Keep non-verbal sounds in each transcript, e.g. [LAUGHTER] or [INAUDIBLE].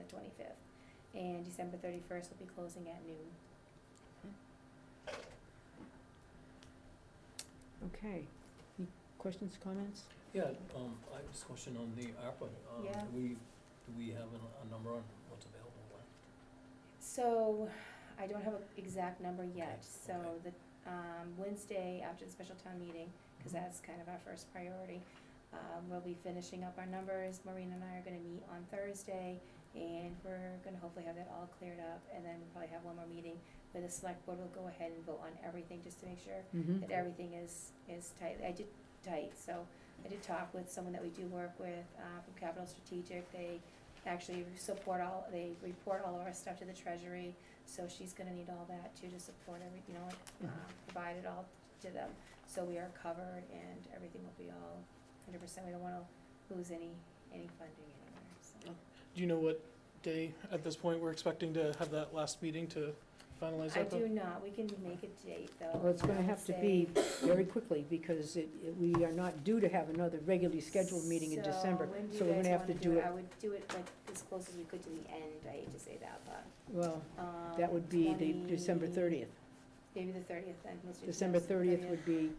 25th. And December 31st will be closing at noon. Okay. Any questions, comments? Yeah, um, I have a question on the ARPA. Um, Yeah. Do we, do we have a, a number on what's available left? So, I don't have an exact number yet, so okay. the, um, Wednesday after the special town meeting, cause Mhm. that's kind of our first priority, um, we'll be finishing up our numbers, Maureen and I are gonna meet on Thursday, and we're gonna hopefully have that all cleared up, and then we'll probably have one more meeting where the select board will go ahead and vote on everything, just to make sure Mm-hmm. that everything is, is tight. I did tight, so I did talk with someone that we do work with, uh, from Capital Strategic. They actually support all, they report all of our stuff to the treasury, so she's gonna need all that too to support every, you know, like, uh, Mm-hmm. provide it all to them. So we are covered and everything will be all hundred percent. We don't wanna lose any, any funding anywhere, so. Do you know what day at this point we're expecting to have that last meeting to Oh, finalize I that? do not, we can make a date though. Well, it's I gonna would have to say- be very quickly, because it, it- we are not due to have another regularly scheduled meeting in December. So when do you So we're guys gonna have to wanna do it? I it, would do it like as close as we could to the end, I hate to say that, but, well, um. that would be the December 20 thirtieth. Maybe the thirtieth then, let's do December thirtieth would be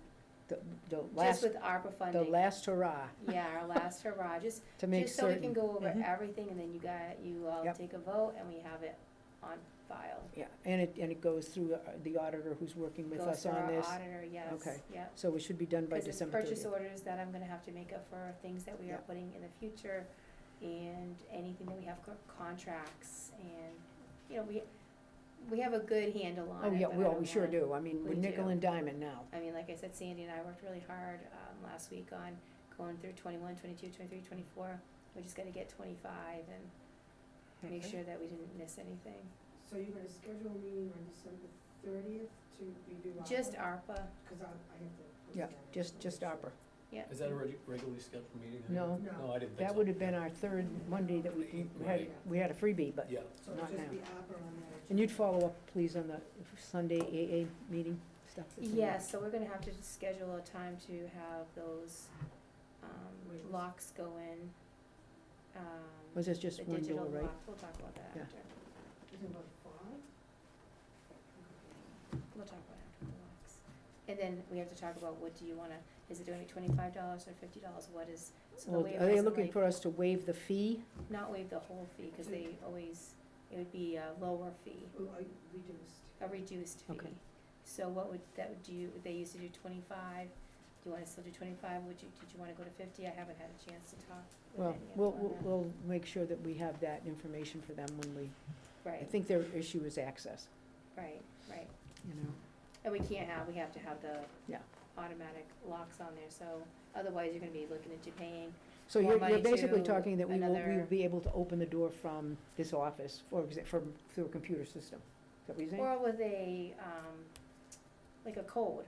the, the Just last, with ARPA the funding, last hurrah yeah, our last hurrah, just, to [LAUGHS] make just so we can certain. Mm-hmm. go over Mhm. everything and then you got, you all Yep. take a vote and we have it on file. Yeah, and it, and it goes through uh, the auditor who's working with us on Goes this. through our auditor, yes, Okay. yeah. So it should be done by Because it's December purchase thirtieth. orders that I'm gonna have to make up for things that we are Yeah. putting in the future and anything that we have co- contracts and, you know, we, we have a good handle on it. Oh, yeah, but I well, don't we sure wanna- do. I mean, we're We nickel do. and diamond now. I mean, like I said, Sandy and I worked really hard, um, last week on going through twenty-one, twenty-two, twenty-three, twenty-four. We just gotta get twenty-five and make Okay. sure that we didn't miss anything. So you're gonna schedule a meeting on December thirtieth to review ARPA? Just ARPA, Cause I, I have to. post Yeah, that just, just information. ARPA. yeah. Is that a regu- regularly scheduled meeting? I No. didn't- No, I didn't think so. That would have been our third Monday that we we had, we had a freebie, but, Yeah, So it'll Not just now. be ARPA on that. and you'd follow up, please, on the Sunday AA meeting stuff? that's in there. Yes, so we're gonna have to schedule a time to have those, um, Waivers. locks go in. Um, Was this just the one digital door, right? lock, we'll talk about that Yeah. after, Is it about five? we'll talk about after the locks. And then we have to talk about what do you wanna, is it gonna be twenty-five dollars or fifty dollars, what is, so the Well, waiver are they isn't looking like- for us to waive the fee? not waive the whole fee, cause they always, it would be a lower fee, Oh, I reduced. a reduced fee. Okay. So what would, that would do, they used to do twenty-five, do you wanna still do twenty-five, would you, did you wanna go to fifty, I haven't had a chance to talk with Well, any of we'll, them we'll, on we'll make sure that we have that information for them when we, that. I Right, think their issue is access, right, right, you know? and we can't have, we have to have the Yeah. automatic locks on there, so otherwise you're gonna be looking into paying, So More you're, you're money basically to talking that we will, we another- will be able to open the door from this office, for exa- from, through a computer system. Is that what you're saying? or with a, um, like a code,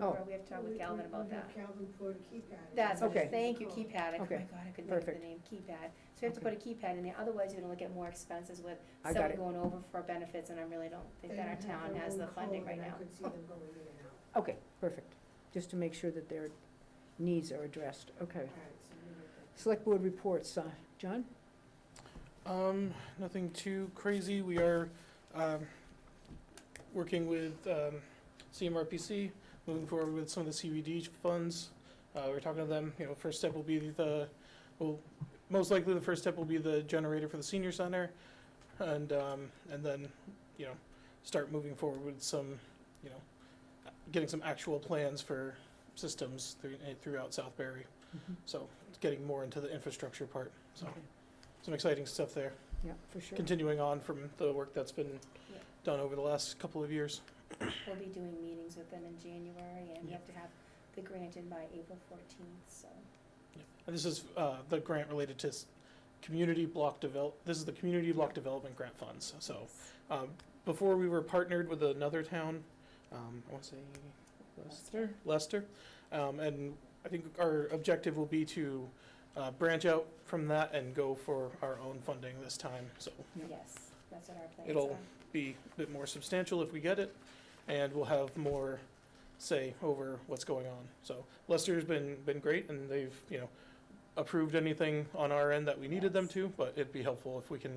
Oh. or we have to talk with Galvin about that. We have Calvin put a keypad. in. That's what, it is. Okay. thank you, keypad, I, oh my Okay. god, I couldn't think of the Perfect. name, keypad, so we have to put a keypad in there, otherwise you're gonna look at more expenses with I someone got it. going over for benefits, and I really don't think that our They have town their has own the funding code, right and now. I could see them going in and out. Okay, perfect. Just to make sure that their needs are addressed. Okay. All right, so we're gonna- Select Board reports, uh, John? Um, nothing too crazy. We are, um, working with, um, CMRPC, moving forward with some of the CVD funds. Uh, we're talking to them, you know, first step will be the, well, most likely the first step will be the generator for the senior center. And, um, and then, you know, start moving forward with some, you know, getting some actual plans for systems through, eh, throughout Southbury. So it's getting more into the infrastructure part. So Okay. some exciting stuff there, Yeah, for sure. continuing on from the work that's been Yeah. done over the last couple of years. We'll be doing meetings with them in January, and we Yeah. have to have the grant in by April fourteenth, so, And this is uh, the grant related to s- community block develop, this is the community block development grant funds. So um, before we were partnered with another town, um, I want to say Leicester, Leicester. Um, And I think our objective will be to uh, branch out from that and go for our own funding this time. So Yeah. yes, that's what our plans are. It'll- be a bit more substantial if we get it, and we'll have more say over what's going on. So Lester's been, been great, and they've, you know, approved anything on our end that we needed them Yes. to, but it'd be helpful if we can